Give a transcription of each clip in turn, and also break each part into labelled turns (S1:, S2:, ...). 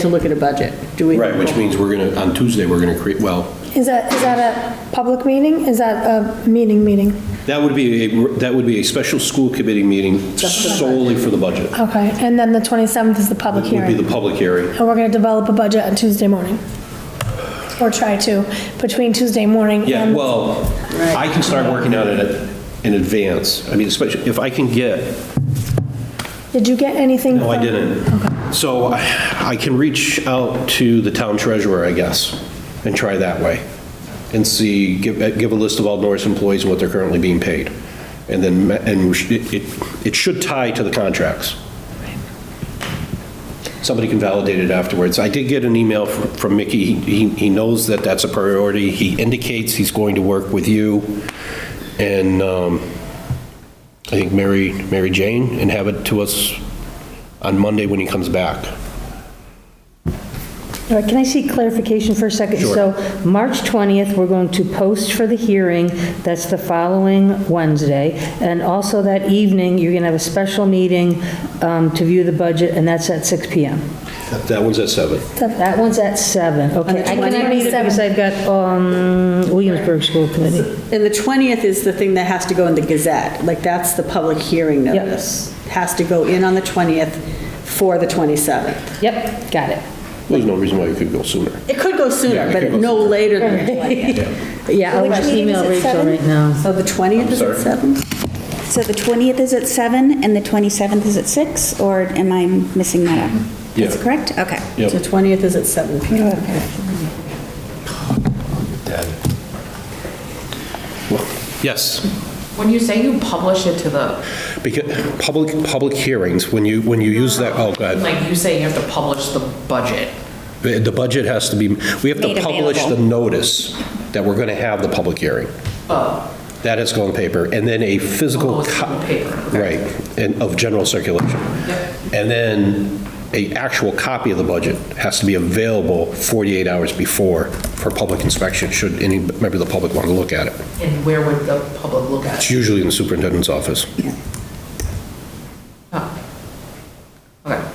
S1: to look at a budget. Do we?
S2: Right, which means we're going to, on Tuesday, we're going to create, well,
S3: Is that, is that a public meeting? Is that a meeting meeting?
S2: that would be, a that would be a special school committee meeting solely for the budget.
S3: Okay, and then the 27th is the public
S2: Would be
S3: hearing.
S2: the public hearing.
S3: And we're going to develop a budget on Tuesday morning. Or try to, between Tuesday morning and...
S2: Yeah, well, I can start working on it in advance. I mean, especially if I can get
S3: Did you get anything?
S2: No, I
S3: from-
S2: didn't. So I I can reach out to the town treasurer, I guess, and try that way, and see, give, give a list of all Norris employees and what they're currently being paid. And then, ma- and we should- it, it- it should tie to the contracts. Somebody can validate it afterwards. I did get an email fr- from Mickey. He, he- he knows that that's a priority. He indicates he's going to work with you and um, I think Mary, Mary Jane, and have it to us on Monday when he comes back.
S4: All right, can I see clarification for a second?
S2: Sure.
S4: So March 20th, we're going to post for the hearing, that's the following Wednesday, and also that evening, you're going to have a special meeting um, to view the budget, and that's at 6 PM.
S2: That one's at seven.
S4: That one's at 7, okay. I cannot meet it
S5: 27th.
S4: because I've got um, Williamsburg School Committee.
S1: And the 20th is the thing that has to go in the Gazette, like, that's the public hearing
S4: Yep.
S1: notice. Has to go in on the 20th for the 27th.
S4: Yep, got it.
S2: There's no reason why it could go sooner.
S1: It could go
S2: Yeah,
S1: sooner,
S2: it could
S1: but
S2: go
S1: no later than the 20th.
S4: Yeah, I'll
S5: Which
S4: just
S5: meeting is
S4: email
S5: at
S4: Rachel
S5: 7?
S4: right now.
S1: So the 20th is at
S2: sorry?
S1: 7?
S5: So the 20th is at 7 and the 27th is at 6, or am I missing that up?
S2: Yeah.
S5: That's correct? Okay.
S1: The 20th is at 7 p.m.
S2: Yes,
S6: When you say you publish it to the,
S2: because, public, public hearings, when you, when you use that, oh, God,
S6: like you say you have to publish the budget,
S2: the the budget has to be, we have to
S5: Made
S2: publish the
S5: available.
S2: notice that we're going to have the public hearing.
S6: oh,
S2: That has to go on paper, and then a physical.
S6: Oh, it's
S2: co-
S6: on paper,
S2: Right,
S6: okay.
S2: and of general circulation. And then a actual copy of the budget has to be available 48 hours before for public inspection, should any member of the public want to look at it.
S6: and where would the public look at
S2: It's
S6: it?
S2: usually in the superintendent's office.
S6: Oh. Okay.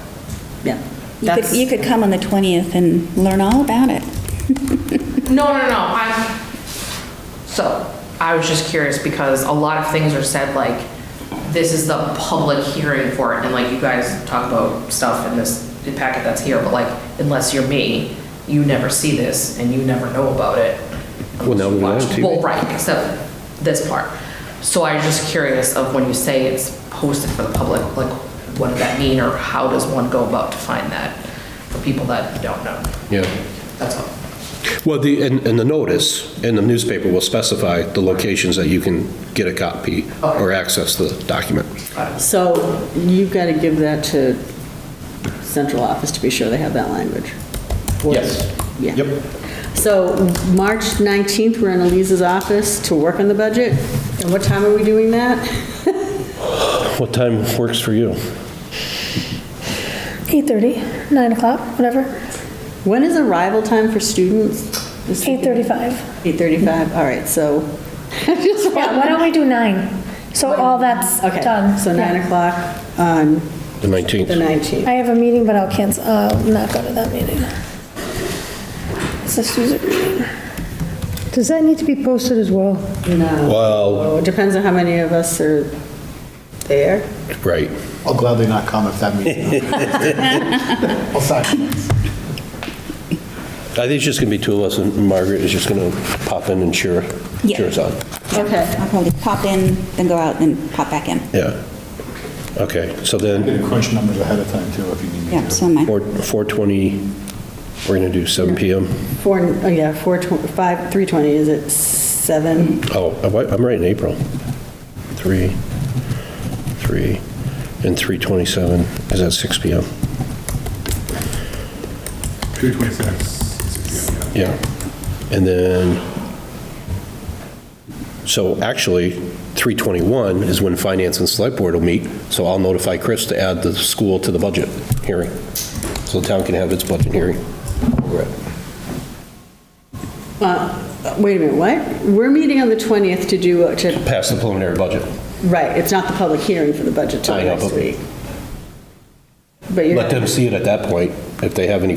S1: Yeah.
S5: You could, you
S1: That's-
S5: could come on the 20th and learn all about it.
S6: No, no, no, I'm, so, I was just curious because a lot of things are said like, this is the public hearing for it, and like you guys talk about stuff in this packet that's here, but like, unless you're me, you never see this and you never know about it.
S2: Well, now we know on TV.
S6: Well, right, except this part. So I was just curious of when you say it's posted for the public, like, what does that mean, or how does one go about to find that for people that don't know?
S2: Yeah.
S6: That's all.
S2: Well, the, and, and the notice in the newspaper will specify the locations that you can get a copy or access the document.
S1: So you've got to give that to central office to be sure they have that language.
S2: Yes.
S1: Yeah.
S2: Yep.
S1: So March 19th, we're in Elise's office to work on the budget. And what time are we doing that?
S2: What time works for you?
S3: 8:30, 9 o'clock, whatever,
S1: When is arrival time for students? Is it-
S3: 8:35.
S1: 8:35, all right, so.
S3: Yeah, why don't we do 9? So all that's
S1: Okay,
S3: done.
S1: so 9
S3: Yeah.
S1: o'clock on the
S2: The 19th.
S1: 19th.
S3: I have a meeting, but I'll cancel, I'll not go to that meeting. It's a Susan meeting.
S4: Does that need to be posted as well?
S1: No.
S2: Well,
S1: Well, It depends on how many of us are there.
S2: right.
S7: I'll gladly not comment if that means. I'll silence.
S2: I think it's just going to be two of us, and Margaret is just going to pop in and cheer,
S5: Yeah.
S2: cheer us on.
S1: Okay.
S5: I'll probably pop in, then go out, then pop back in.
S2: Yeah. Okay, so
S7: I'm
S2: then,
S7: going to crunch numbers ahead of time too, if you need me
S5: Yeah,
S7: to.
S5: so am I.
S2: four 4:20, we're going to do 7 PM.
S1: Four, oh yeah, 4, 5, 3:20, is it 7?
S2: Oh, I'm right- I'm right in April. 3, 3, and 3:27 is at 6 PM.
S8: 226.
S2: Yeah. And then, so actually, 3:21 is when Finance and Select Board will meet, so I'll notify Chris to add the school to the budget hearing, so the town can have its budget hearing.
S1: Wait a minute, what? We're meeting on the 20th to do, to,
S2: Pass the preliminary budget.
S1: right, it's not the public hearing for the budget till
S2: I know,
S1: next
S2: but-
S1: week. But you're.
S2: Let them see it at that point, if they have any